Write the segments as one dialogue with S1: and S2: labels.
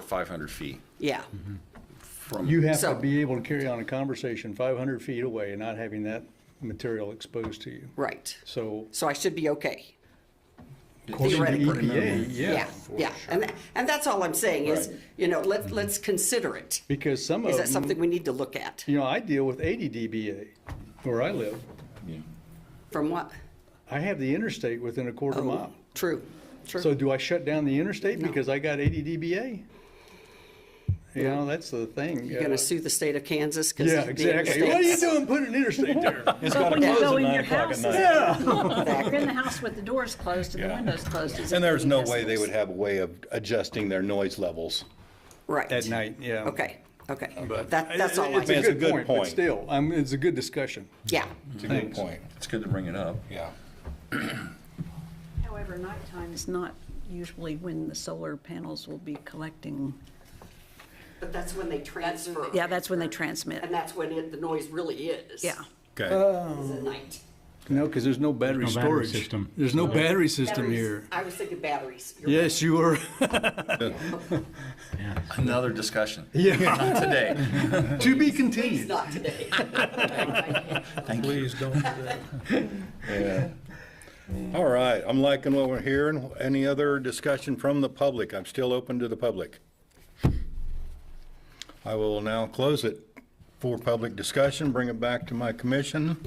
S1: 500 feet
S2: Yeah,
S3: Mm-hmm.
S1: from.
S3: You have to
S2: So-
S3: be able to carry on a conversation 500 feet away and not having that material exposed to you.
S2: right.
S3: So
S2: So I should be okay.
S3: according to
S2: Theoretically.
S3: EPA, E yeah.
S2: Yeah, and, tha- and that's all I'm saying is,
S1: Right.
S2: you know, let's,
S3: Mm-hmm.
S2: let's consider it.
S3: Because some
S2: Is that
S3: of
S2: something
S3: them,
S2: we need to look at?
S3: you know, I deal with 80 dBA where I live.
S2: From what?
S3: I have the interstate within a quarter mile.
S2: True,
S3: So
S2: true.
S3: do I shut down the interstate
S2: Oh, No.
S3: because I got 80 dBA? You know, that's the thing.
S2: You're gonna sue the state of Kansas? 'cause
S3: Yeah,
S2: the
S3: exactly. What are you
S2: interstate's-
S3: doing putting an interstate there?
S4: It's got to
S5: when you
S4: close
S5: go
S4: at
S5: in
S4: nine
S5: your
S4: o'clock at
S5: house,
S4: night.
S5: You're in the house with the doors closed and the windows closed. It's
S6: And there's
S5: gonna
S6: no
S5: be
S6: way they would
S5: business.
S6: have a way of adjusting their noise levels.
S2: Right.
S3: At night, yeah.
S2: Okay, okay.
S3: But
S2: That, that's all I,
S3: It's a
S6: It's a
S3: good
S6: good
S3: point, but
S6: point.
S3: still, um, it's a good discussion.
S2: yeah,
S6: It's a good point,
S1: It's good to bring it up.
S6: yeah.
S5: However, nighttime is not usually when the solar panels will be collecting.
S2: but that's when they transfer.
S5: Yeah, that's when they transmit.
S2: And that's when it, the noise really is.
S5: Yeah.
S6: Okay.
S2: Is at night.
S3: No, because there's no battery
S7: There's no battery
S3: storage.
S7: system.
S3: There's no battery system
S2: Batteries.
S3: here.
S2: I was thinking batteries. You're right.
S3: Yes, you were.
S1: Another discussion.
S3: Yeah.
S1: Not today.
S3: To be
S2: Please
S3: continued.
S2: not today.
S4: Please don't do that.
S6: All right, I'm liking what we're hearing. Any other discussion from the public? I'm still open to the public. I will now close it for public discussion, bring it back to my commission.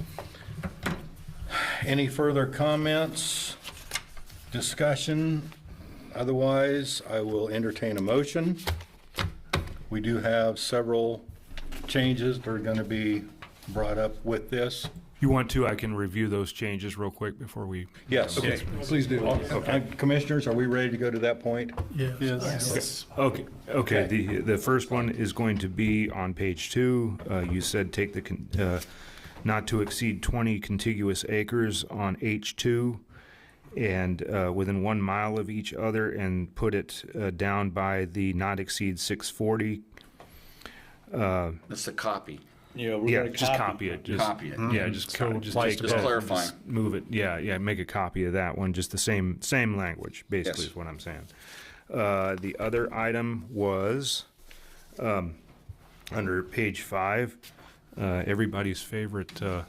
S6: Any further comments, discussion? Otherwise, I will entertain a motion. We do have several changes that are going to be brought up with this.
S8: You want to, I can review those changes real quick before we.
S6: Yes.
S3: Please do.
S6: Uh, Commissioners, are we ready to go to that point?
S4: Yes.
S8: Okay, okay, the, the first one is going to be on page two. Uh, you said take the, con- uh, not to exceed twenty contiguous acres on H two and, uh, within one mile of each other and put it, uh, down by the not exceed six forty.
S1: That's the copy.
S3: Yeah, we're
S8: Yeah,
S3: gonna
S8: just copy it, just.
S1: Copy it.
S8: Yeah, just, co- just
S1: like
S8: take
S1: just
S8: that,
S1: clarifying.
S8: just Move it, yeah, yeah, make a copy of that one, just the same, same language, basically
S1: Yes.
S8: is what I'm saying. Uh, the other item was, um, under page five, uh, everybody's favorite, uh,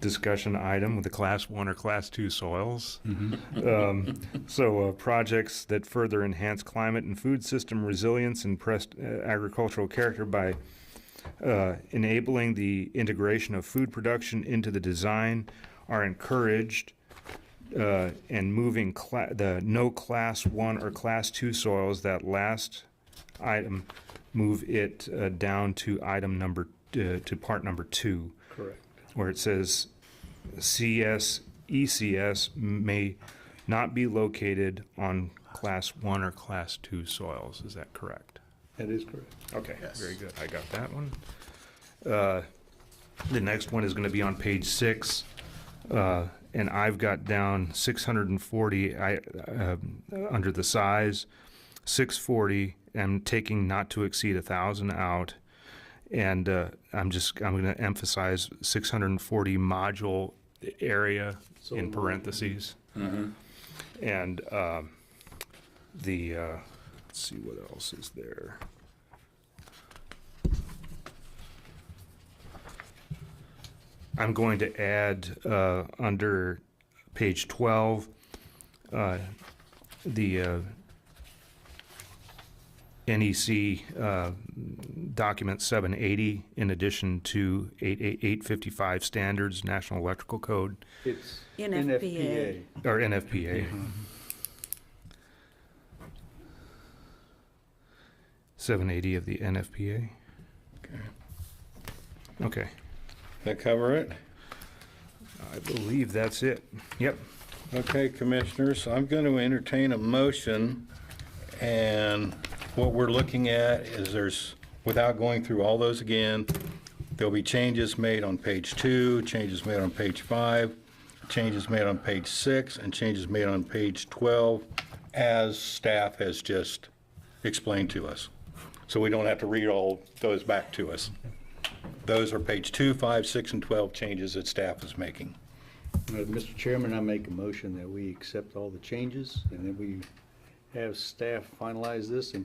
S8: discussion item with the class one or class two soils.
S1: Mm-hmm.
S8: Um, so, uh, projects that further enhance climate and food system resilience and pressed uh, agricultural character by uh, enabling the integration of food production into the design are encouraged uh, and moving cla- the no class one or class two soils, that last item, move it uh, down to item number, uh, to part number two. Correct. Where it says CS, ECS may not be located on class one or class two soils. Is that correct?
S3: That is correct.
S8: Okay, very good. I got that one. Uh, The next one is going to be on page six, uh, and I've got down 640 I, um, under the size, 640, I'm taking not to exceed 1,000 out, and uh, I'm just, I'm going to emphasize 640 module area in parentheses. And um, the, uh, let's see what else is there. I'm going to add uh, under page 12, uh, the uh, NEC uh, document 780 in addition to 88855 standards, National Electrical Code,
S3: It's
S5: NFPA.
S3: NFPA.
S8: or NFPA. 780 of the NFPA. Okay.
S6: That cover it?
S8: I believe that's it. Yep.
S6: Okay, Commissioners, I'm going to entertain a motion, and what we're looking at is there's, without going through all those again, there'll be changes made on page two, changes made on page five, changes made on page six, and changes made on page 12, as staff has just explained to us. So we don't have to read all those back to us. Those are page two, five, six, and 12 changes that staff is making.
S3: Uh, Mr. Chairman, I make a motion that we accept all the changes and then we have staff finalize this and